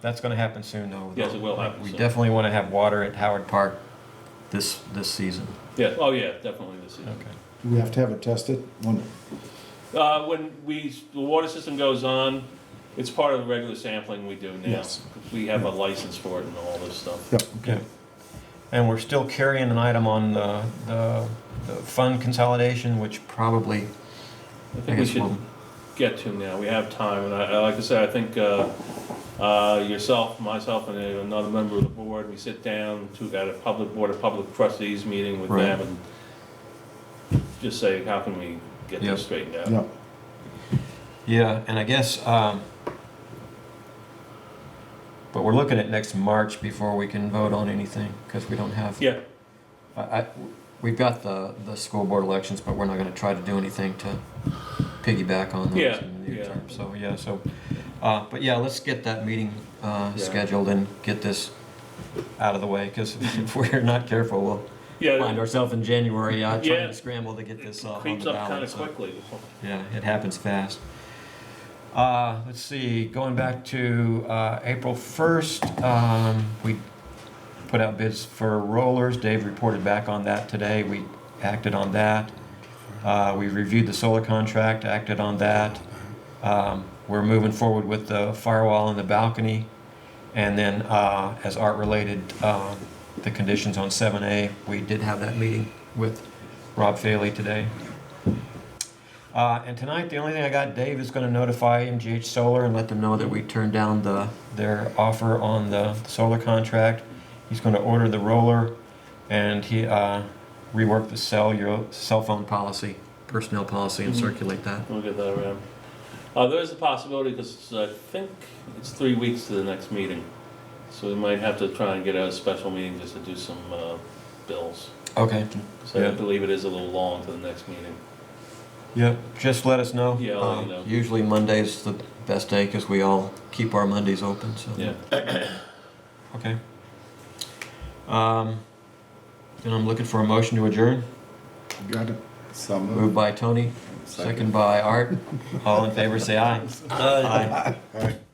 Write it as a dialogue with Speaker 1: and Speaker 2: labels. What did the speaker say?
Speaker 1: That's gonna happen soon, though.
Speaker 2: Yes, it will happen
Speaker 1: We
Speaker 2: soon.
Speaker 1: definitely wanna have water at Howard Park this, this season.
Speaker 2: Yes, oh yeah, definitely this season.
Speaker 3: Do we have to have it tested? When-
Speaker 2: Uh, when we, the water system goes on, it's part of the regular sampling we do now.
Speaker 3: Yes.
Speaker 2: We have a license for it and all this stuff.
Speaker 3: Yep,
Speaker 1: Okay. And we're still carrying an item on the, the, the fund consolidation, which probably,
Speaker 2: I
Speaker 1: I
Speaker 2: think we
Speaker 1: guess,
Speaker 2: should
Speaker 1: will.
Speaker 2: get to now, we have time, and I, I- like I said, I think, uh, uh, yourself, myself, and another member of the board, we sit down to, at a public, Board of Public Trustees meeting with
Speaker 1: Right.
Speaker 2: them and just say, how can we get
Speaker 1: Yep.
Speaker 2: this straightened out?
Speaker 3: yep.
Speaker 1: Yeah, and I guess, um, but we're looking at next March before we can vote on anything, because we don't have.
Speaker 2: Yeah,
Speaker 1: I, I, we've got the, the school board elections, but we're not gonna try to do anything to piggyback on those
Speaker 2: Yeah,
Speaker 1: in the near
Speaker 2: yeah.
Speaker 1: term, so, yeah, so. Uh, but yeah, let's get that meeting, uh,
Speaker 2: Yeah.
Speaker 1: scheduled and get this out of the way, cause if we're not careful, we'll
Speaker 2: yeah,
Speaker 1: find ourselves in January, uh, trying
Speaker 2: Yeah.
Speaker 1: to scramble to get
Speaker 2: it
Speaker 1: this off uh, on
Speaker 2: creeps
Speaker 1: the
Speaker 2: up kinda
Speaker 1: ballot, so.
Speaker 2: quickly.
Speaker 1: Yeah, it happens fast. Uh, let's see, going back to, uh, April first, um, we put out bids for rollers. Dave reported back on that today. We acted on that. Uh, we reviewed the solar contract, acted on that. Um, we're moving forward with the firewall and the balcony. And then, uh, as art related, um, the conditions on seven A, we did have that meeting with Rob Faley today. Uh, and tonight, the only thing I got, Dave is gonna notify MGH Solar and let them know that we turned down the, their offer on the solar contract. He's gonna order the roller and he, uh, rework the cell, your cell phone policy, personnel policy and circulate that.
Speaker 2: We'll get that around. Uh, there is a possibility, because I think it's three weeks to the next meeting, so we might have to try and get a special meeting just to do some, uh, bills.
Speaker 1: Okay.
Speaker 2: So
Speaker 1: Yeah.
Speaker 2: I believe it is a little long to the next meeting.
Speaker 1: Yep, just let us know.
Speaker 2: Yeah, I'll let
Speaker 1: Um,
Speaker 2: you know.
Speaker 1: Usually Monday's the best day because we all keep our Mondays open, so.
Speaker 2: Yeah.
Speaker 1: Okay. Um, and I'm looking for a motion to adjourn,
Speaker 3: Got it.
Speaker 4: So
Speaker 1: moved
Speaker 4: moved.
Speaker 1: by Tony, second by Art. All in favor, say aye. Aye.
Speaker 4: All right.